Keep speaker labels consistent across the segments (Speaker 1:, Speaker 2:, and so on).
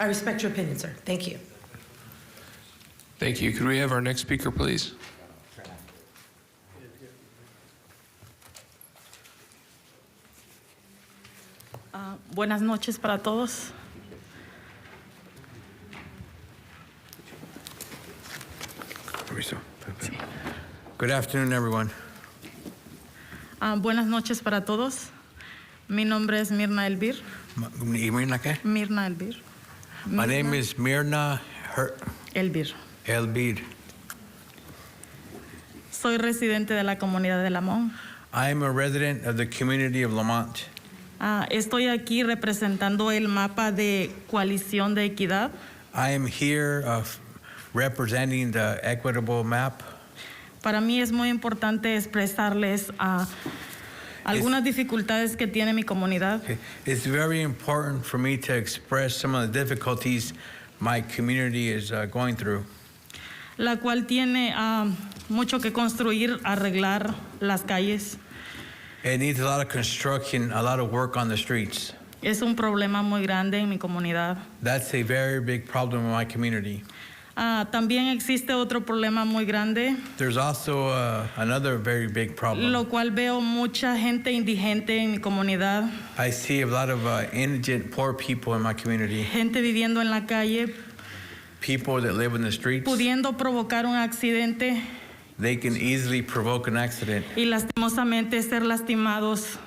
Speaker 1: I respect your opinion, sir. Thank you.
Speaker 2: Thank you. Could we have our next speaker, please?
Speaker 3: Ah, Buenas noches para todos.
Speaker 4: Good afternoon, everyone.
Speaker 3: Ah, buenas noches para todos. Mi nombre es Mirna Elvir.
Speaker 4: My you mean like that?
Speaker 3: Mirna Elvir.
Speaker 4: My name is Mirna Her-
Speaker 3: Elvir.
Speaker 4: Elbir.
Speaker 3: Soy residente de la comunidad de Lamón.
Speaker 4: I am a resident of the community of Lamont.
Speaker 3: Ah, estoy aquí representando el mapa de coalición de equidad.
Speaker 4: I am here of representing the equitable map.
Speaker 3: Para mí es muy importante expresarles ah, algunas dificultades que tiene mi comunidad.
Speaker 4: Okay. It's very important for me to express some of the difficulties my community is uh, going through.
Speaker 3: la cual tiene ah, mucho que construir, arreglar las calles.
Speaker 4: It needs a lot of construction, a lot of work on the streets.
Speaker 3: Es un problema muy grande en mi comunidad.
Speaker 4: That's a very big problem in my community.
Speaker 3: Ah, también existe otro problema muy grande,
Speaker 4: There's also uh, another very big problem.
Speaker 3: lo cual veo mucha gente indigente en mi comunidad,
Speaker 4: I see a lot of uh, indigent, poor people in my community.
Speaker 3: gente viviendo en la calle,
Speaker 4: People that live in the streets,
Speaker 3: pudiendo provocar un accidente
Speaker 4: they can easily provoke an accident,
Speaker 3: y lastimosamente ser lastimados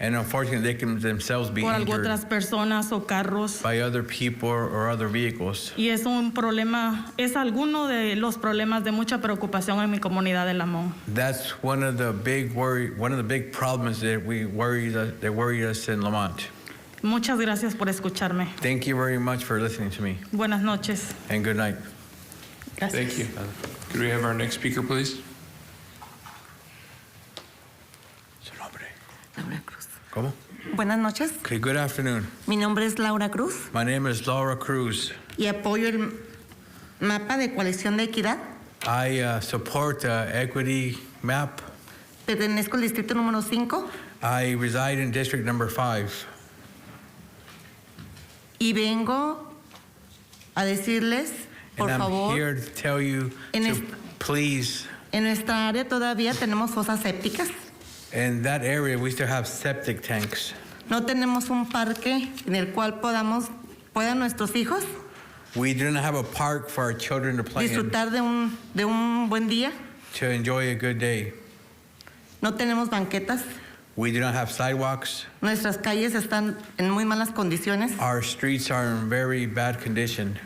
Speaker 4: and unfortunately, they can themselves be
Speaker 3: por algo
Speaker 4: injured
Speaker 3: otras personas o carros.
Speaker 4: by other people or other vehicles.
Speaker 3: Y es un problema, es alguno de los problemas de mucha preocupación en mi comunidad de Lamón.
Speaker 4: That's one of the big worry, one of the big problems that we worry that, that worry us in Lamont.
Speaker 3: Muchas gracias por escucharme.
Speaker 4: Thank you very much for listening to me,
Speaker 3: Buenas noches.
Speaker 4: and good night.
Speaker 3: Gracias.
Speaker 2: Thank you. Could we have our next speaker, please?
Speaker 5: Laura Cruz.
Speaker 4: ¿Cómo?
Speaker 5: Buenas noches.
Speaker 4: Okay, good afternoon.
Speaker 5: Mi nombre es Laura Cruz
Speaker 4: My name is Laura Cruz.
Speaker 5: y apoyo el mapa de coalición de equidad.
Speaker 4: I uh, support the equity map.
Speaker 5: Pertenezco al distrito número 5
Speaker 4: I reside in district number five.
Speaker 5: y vengo a decirles, por
Speaker 4: and I'm
Speaker 5: favor,
Speaker 4: here to tell you
Speaker 5: En
Speaker 4: to
Speaker 5: es-
Speaker 4: please.
Speaker 5: en nuestra área todavía tenemos fosas sépticas.
Speaker 4: In that area, we still have septic tanks.
Speaker 5: No tenemos un parque en el cual podamos puedan nuestros hijos
Speaker 4: We do not have a park for our children to play in
Speaker 5: disfrutar de un, de un buen día.
Speaker 4: to enjoy a good day.
Speaker 5: No tenemos banquetas.
Speaker 4: We do not have sidewalks.
Speaker 5: Nuestras calles están en muy malas condiciones.
Speaker 4: Our streets are in very bad condition.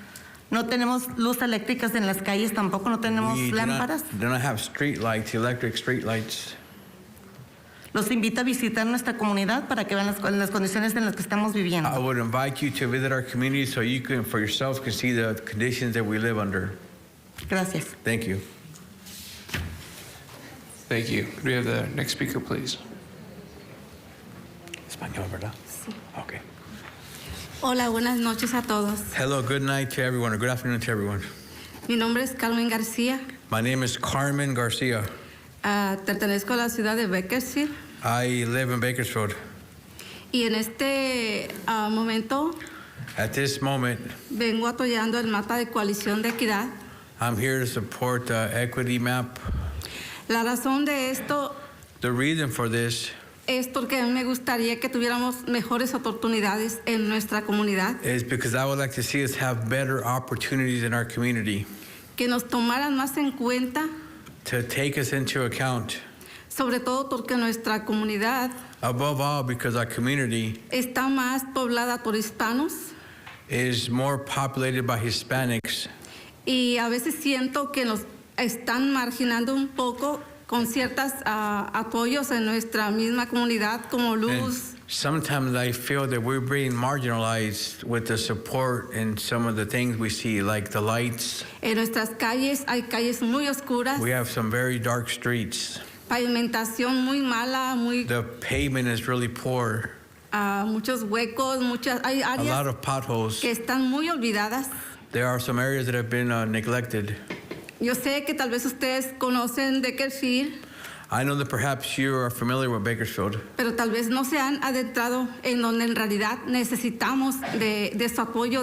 Speaker 5: No tenemos luz eléctricas en las calles, tampoco no tenemos
Speaker 4: we do
Speaker 5: lámparas.
Speaker 4: not, do not have street lights, electric street lights.
Speaker 5: Los invito a visitar nuestra comunidad para que vean las, co- las condiciones en las que estamos viviendo.
Speaker 4: I would invite you to visit our community so you can, for yourself, can see the conditions that we live under.
Speaker 5: Gracias.
Speaker 4: Thank you.
Speaker 2: Thank you. Could we have the next speaker, please?
Speaker 4: Okay.
Speaker 6: Hola, buenas noches a todos.
Speaker 4: Hello, good night to everyone, or good afternoon to everyone.
Speaker 6: Mi nombre es Carmen García.
Speaker 4: My name is Carmen Garcia.
Speaker 6: Ah, pertenezco a la ciudad de Bakersfield
Speaker 4: I live in Bakersfield.
Speaker 6: y en este ah, momento
Speaker 4: At this moment,
Speaker 6: vengo atollando el mapa de coalición de equidad.
Speaker 4: I'm here to support the equity map.
Speaker 6: La razón de esto
Speaker 4: The reason for this
Speaker 6: es porque a mí me gustaría que tuviéramos mejores oportunidades en nuestra comunidad,
Speaker 4: is because I would like to see us have better opportunities in our community
Speaker 6: que nos tomaran más en cuenta,
Speaker 4: to take us into account.
Speaker 6: sobre todo porque nuestra comunidad
Speaker 4: Above all, because our community
Speaker 6: está más poblada por hispanos
Speaker 4: is more populated by Hispanics,
Speaker 6: y a veces siento que nos están marginando un poco con ciertos apoyos en nuestra misma comunidad como
Speaker 4: and
Speaker 6: luz.
Speaker 4: sometimes I feel that we're being marginalized with the support and some of the things we see, like the lights.
Speaker 6: En nuestras calles hay calles muy oscuras,
Speaker 4: We have some very dark streets.
Speaker 6: pavimentación muy mala, muy
Speaker 4: The pavement is really poor.
Speaker 6: ah, muchos huecos, muchas hay
Speaker 4: A lot
Speaker 6: áreas
Speaker 4: of potholes.
Speaker 6: que están muy olvidadas.
Speaker 4: There are some areas that have been uh, neglected.
Speaker 6: Yo sé que tal vez ustedes conocen Deckerfield,
Speaker 4: I know that perhaps you are familiar with Bakersfield,
Speaker 6: pero tal vez no se han adentrado en donde en realidad necesitamos de, de su apoyo